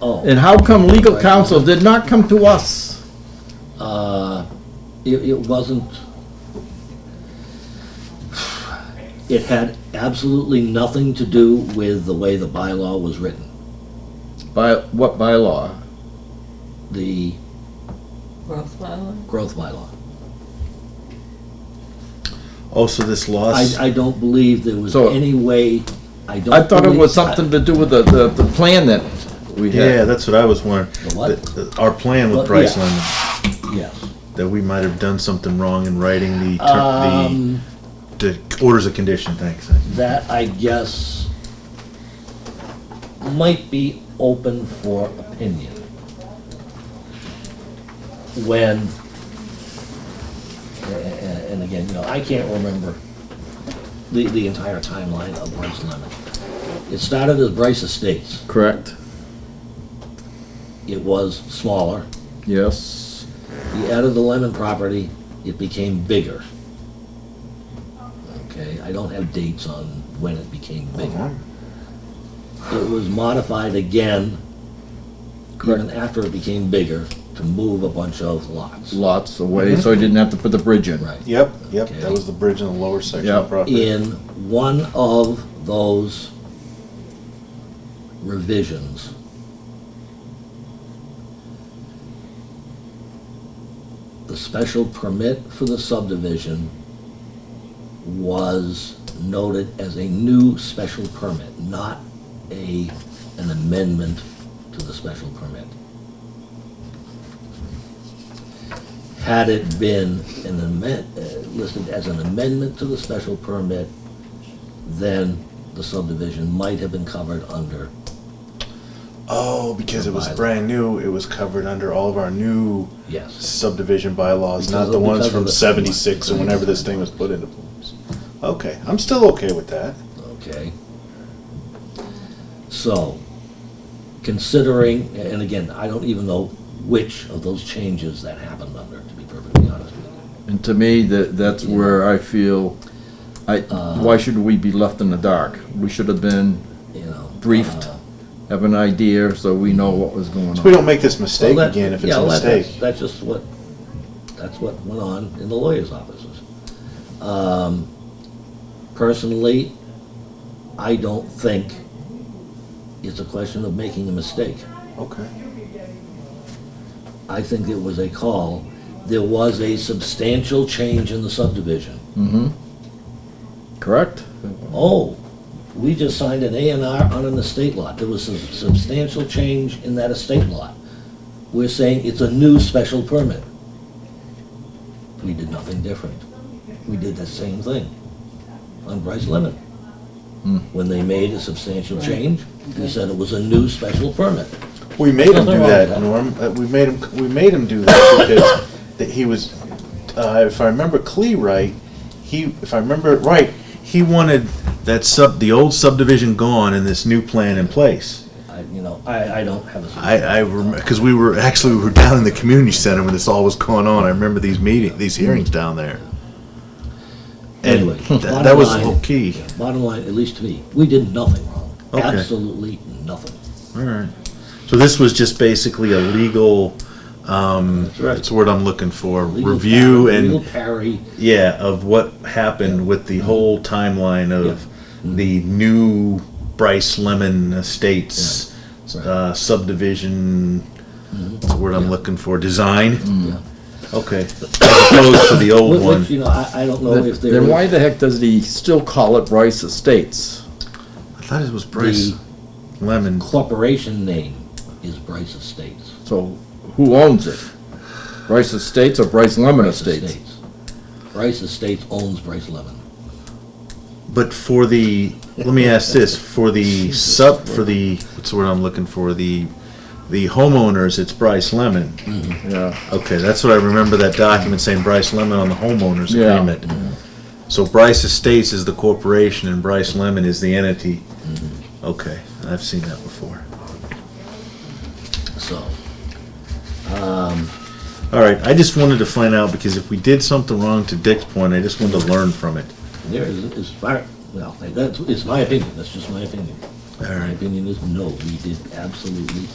Oh. And how come legal counsel did not come to us? Uh, It, it wasn't, it had absolutely nothing to do with the way the bylaw was written. By, what by law? The Growth bylaw? growth bylaw. Oh, so this law, I, I don't believe there was So- any way, I don't. I thought it believe- was something to do with the, the, the plan that we yeah, had. that's what I was wondering. The what? That- that Our plan with Well, Bryce yeah. Lemon, Yes. that we might have done something wrong in writing the, ter- Um, the, the orders of condition, thanks. that I guess might be open for opinion. When, a- a- and again, you know, I can't remember the, the entire timeline of Bryce Lemon. It started as Bryce Estates. Correct, It was smaller. yes. He added the Lemon property, it became bigger. Okay, I don't have dates on when it became bigger. It was modified again, even after it became bigger, to move a bunch of lots. Lots away, so he didn't have to put the bridge in. Right. Yep, yep, that was the bridge in the lower section of Yep. In one of those revisions, the special permit for the subdivision was noted as a new special permit, not a, an amendment to the special permit. Had it been an amend, uh, listed as an amendment to the special permit, then the subdivision might have been covered under, Oh, because it was Bylaw. brand new, it was covered under all of our new yes. subdivision bylaws, Because not of- the ones because of from the- seventy-six or whenever this thing was put into place. Okay, I'm still okay with that. Okay. So, considering, and again, I don't even know which of those changes that happened under, to be perfectly honest with you. And to me, that, that's where I feel, I, why should we be left in the dark? We should have been, You know. Briefed. uh, have an idea, so we know what was going So we on. don't make this mistake well, that- again if it's yeah, a well, that- mistake. that's- That's just what, that's what went on in the lawyers' offices. Um, Personally, I don't think it's a question of making a mistake. Okay. I think it was a call. There was a substantial change in the subdivision. Mm-hmm. Correct? Oh, we just signed an A and R on an estate lot. There was a substantial change in that estate lot. We're saying it's a new special permit. We did nothing different. We did the same thing on Bryce Lemon. Hmm. When they made a substantial change, we said it was a new special permit. We made him do Nothing wrong with that, that. Norm. Uh, We made him, we made him do that because that he was, uh, if I remember Clee right, he, if I remember it right, he wanted that sub, the old subdivision gone and this new plan in place. I, you know, I, I don't have a. I, I remember, because we were, actually, we were down in the community center when this all was going on. I remember these meeting, these hearings down there. And Anyway, tha- bottom that was the line- whole key. yeah, Bottom line, at least to me, we did nothing wrong. Okay. Absolutely nothing. All right. So this was just basically a legal, um, That's right. that's the word I'm looking for, Legal review parry- and. Legal parry. Yeah, of what happened with the whole timeline of Mm-hmm. the new Bryce Lemon Estates Right. Mm-hmm. uh, subdivision. What's the word I'm looking for? Design. Yeah. Okay, as opposed to the old Which- one. Which, you know, I, I don't know if there. Then why the heck does he still call it Rice Estates? I thought it was Bryce The Lemon. corporation name is Bryce Estates. So who owns it? Rice Estates or Bryce Lemon Bryce Estates? Bryce Estates owns Bryce Lemon. But for the, let me ask this: for the sub, for the what's the word I'm looking for? The the homeowners, it's Bryce Lemon. Yeah. Okay, that's what I remember that document saying Bryce Lemon on the homeowners Yeah. agreement. So Bryce Estates is the corporation and Bryce Lemon is the entity. Okay, I've seen that before. So, All right, I just wanted to find out because if we did something wrong to Dick's point, I just wanted to learn from it. there is, is fire, well, that's, it's my opinion, that's just my opinion. All My right. opinion is no, we did absolutely